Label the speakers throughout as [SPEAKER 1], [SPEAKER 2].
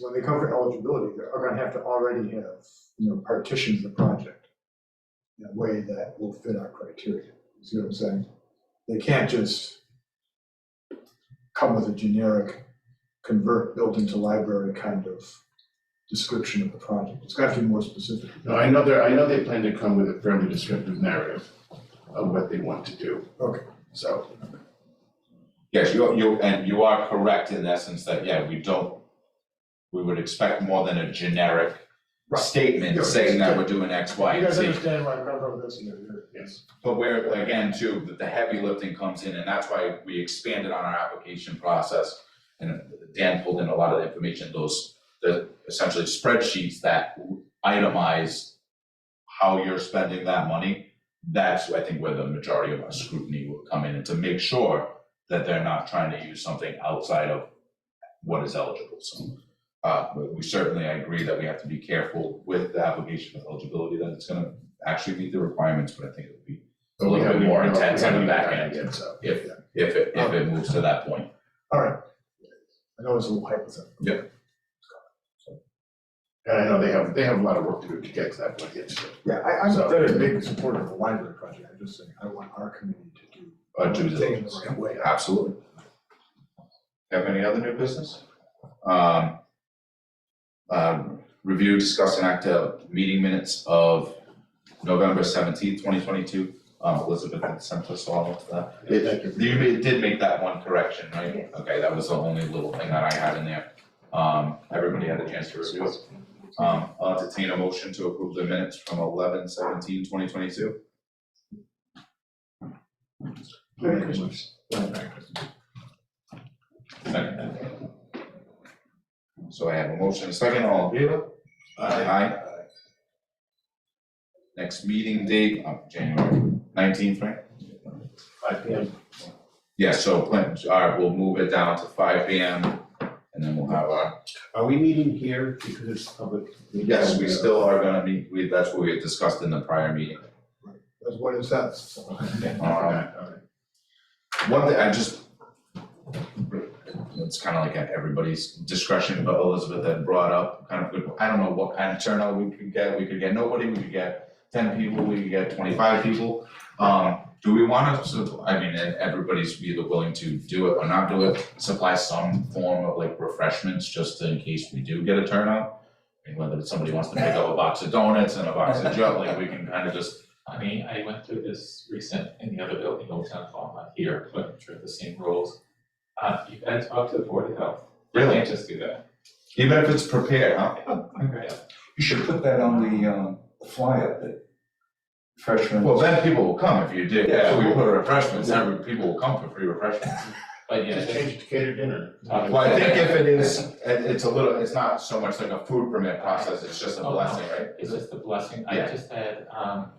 [SPEAKER 1] When they come for eligibility, they're gonna have to already have, you know, partitioned the project in a way that will fit our criteria, You see what I'm saying? They can't just come with a generic convert building to library kind of description of the project. It's gotta be more specific.
[SPEAKER 2] No, I know they're, I know they plan to come with a fairly descriptive narrative of what they want to do.
[SPEAKER 1] Okay.
[SPEAKER 2] So,
[SPEAKER 3] Yes, you, you, and you are correct in essence that, yeah, we don't, we would expect more than a generic
[SPEAKER 1] Right. Yeah,
[SPEAKER 3] statement saying that we're doing X, Y,
[SPEAKER 1] You
[SPEAKER 3] and
[SPEAKER 1] guys
[SPEAKER 3] Z.
[SPEAKER 1] understand why I'm coming from this, you know, you're-
[SPEAKER 2] yes,
[SPEAKER 3] But where, again, too, that the heavy lifting comes in, and that's why we expanded on our application process. And Dan pulled in a lot of the information, those, the essentially spreadsheets that itemize how you're spending that money. That's, I think, where the majority of our scrutiny will come in, and to make sure that they're not trying to use something outside of what is eligible, so. Uh, but we certainly, I agree that we have to be careful with the application of eligibility, that it's gonna actually meet the requirements, but I think it'll be a
[SPEAKER 2] we
[SPEAKER 3] little bit
[SPEAKER 2] haven't
[SPEAKER 3] more
[SPEAKER 2] even-
[SPEAKER 3] intense
[SPEAKER 2] we
[SPEAKER 3] on the
[SPEAKER 2] haven't
[SPEAKER 3] back
[SPEAKER 2] even gotten
[SPEAKER 3] end,
[SPEAKER 2] yet, so.
[SPEAKER 3] if, if it, if it moves to that point.
[SPEAKER 1] All right. I know it's a little hypothetical.
[SPEAKER 2] And I know they have, they have a lot of work to do to get to that point yet, so,
[SPEAKER 1] Yeah, I, I'm a
[SPEAKER 2] So-
[SPEAKER 1] very big supporter of the library project. I'm just saying, I want our community to do
[SPEAKER 3] uh, due
[SPEAKER 1] Taking
[SPEAKER 3] diligence.
[SPEAKER 1] the right way.
[SPEAKER 3] Absolutely. Have any other new business? Um, um, review, discuss and act of meeting minutes of November seventeenth, twenty twenty-two. Um, Elizabeth had sent us all of that.
[SPEAKER 2] yeah, thank you.
[SPEAKER 3] You ma- did make that one correction, right? Okay, that was the only little thing that I had in there. Um, everybody had a chance to review it. Um, I'll entertain a motion to approve the minutes from eleven seventeen twenty twenty-two.
[SPEAKER 1] Merry Christmas.
[SPEAKER 3] So I have a motion, a second, all in favor? Aye. Next meeting date, uh, January nineteenth, right?
[SPEAKER 2] Five P M,
[SPEAKER 3] Yeah, so plan, all right, we'll move it down to five P M and then we'll have our,
[SPEAKER 4] Are we meeting here because it's public?
[SPEAKER 3] yes, we still are gonna meet, we, that's what we had discussed in the prior meeting.
[SPEAKER 1] That's what it says.
[SPEAKER 3] Um, One thing, I just, it's kind of like at everybody's discretion, but Elizabeth had brought up kind of good, I don't know what kind of turnout we could get, we could get nobody, we could get ten people, we could get twenty-five people. Um, do we wanna, so, I mean, and everybody's either willing to do it or not do it, supply some form of like refreshments, just in case we do get a turnout? And whether it's somebody wants to pick up a box of donuts and a box of jelly, we can kind of just,
[SPEAKER 5] I mean, I went through this recent in the other building, Old Town Hall, not here, but I'm sure the same rules. Uh, you gotta talk to the Board of Health. You
[SPEAKER 3] Really?
[SPEAKER 5] Can't just do that.
[SPEAKER 3] even if it's prepared, huh?
[SPEAKER 5] Okay.
[SPEAKER 6] You should put that on the, um, flyer, that freshman.
[SPEAKER 3] Well, then people will come if you do, yeah, we put refreshments,
[SPEAKER 6] Yeah.
[SPEAKER 3] every, people will come for free refreshments.
[SPEAKER 5] But yeah,
[SPEAKER 2] just
[SPEAKER 5] just
[SPEAKER 2] change it to catered dinner.
[SPEAKER 5] talk to.
[SPEAKER 3] Well, I think if it is, it, it's a little, it's not so much like a food permit process, it's just a
[SPEAKER 5] Oh, no.
[SPEAKER 3] blessing, right?
[SPEAKER 5] It's just a blessing. I
[SPEAKER 3] Yeah.
[SPEAKER 5] just had, um,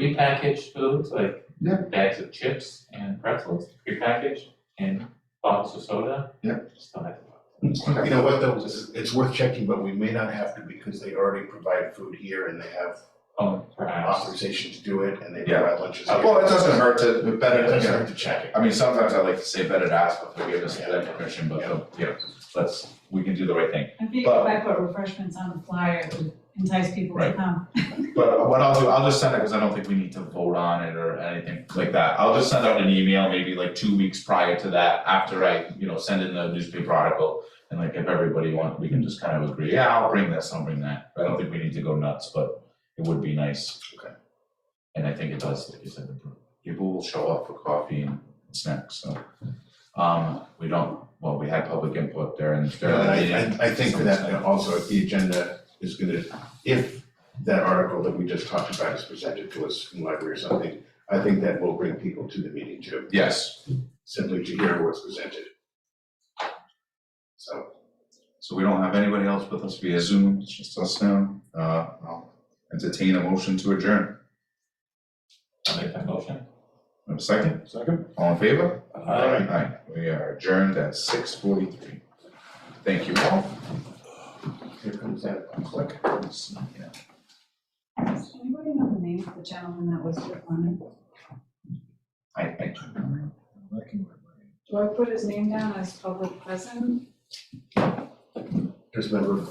[SPEAKER 5] prepackaged foods, like
[SPEAKER 3] Yeah.
[SPEAKER 5] bags of chips and pretzels, prepackaged, and bottles of soda.
[SPEAKER 3] Yeah.
[SPEAKER 5] Just don't have to.
[SPEAKER 2] You know what, though, it's- it's worth checking, but we may not have to because they already provide food here and they have
[SPEAKER 5] Oh, perhaps.
[SPEAKER 2] authorization to do it and they
[SPEAKER 3] Yeah.
[SPEAKER 2] provide lunches.
[SPEAKER 3] Uh,
[SPEAKER 2] here.
[SPEAKER 3] Well, it doesn't hurt to, but
[SPEAKER 2] But
[SPEAKER 3] better,
[SPEAKER 2] it
[SPEAKER 3] to-
[SPEAKER 2] doesn't hurt to check it.
[SPEAKER 3] I mean, sometimes I like to say better to ask for forgiveness than permission, but, uh, yeah, let's, we can do the right thing.
[SPEAKER 7] I think if
[SPEAKER 3] But-
[SPEAKER 7] I put refreshments on the flyer, it would entice people to
[SPEAKER 3] Right.
[SPEAKER 7] come.
[SPEAKER 3] But what I'll do, I'll just send it, cause I don't think we need to vote on it or anything like that, I'll just send out an email maybe like two weeks prior to that, after I, you know, send in the newspaper article. And like if everybody wants, we can just kind of agree, yeah, I'll bring this, I'll bring that, I don't think we need to go nuts, but it would be nice.
[SPEAKER 2] Okay.
[SPEAKER 3] And I think it does, like you said, people will show up for coffee and snacks, so. Um, we don't, well, we had public input there and
[SPEAKER 2] And
[SPEAKER 3] there.
[SPEAKER 2] I, I, I think that also the agenda is gonna, if that article that we just talked about is presented to us from library or something, I think that will bring people to the meeting too,
[SPEAKER 3] Yes,
[SPEAKER 2] simply to hear what's presented. So.
[SPEAKER 3] So we don't have anybody else with us via Zoom, it's just us now. Uh, I'll entertain a motion to adjourn.
[SPEAKER 5] I'll make that motion.
[SPEAKER 3] Have a second?
[SPEAKER 1] Second?
[SPEAKER 3] All in favor?
[SPEAKER 2] Aye.
[SPEAKER 3] Aye. We are adjourned at six forty-three. Thank you all.
[SPEAKER 2] Here comes that click.
[SPEAKER 7] Does anybody know the name of the gentleman that was with Lemon?
[SPEAKER 3] I, I.
[SPEAKER 7] Do I put his name down as public present?
[SPEAKER 1] There's a number of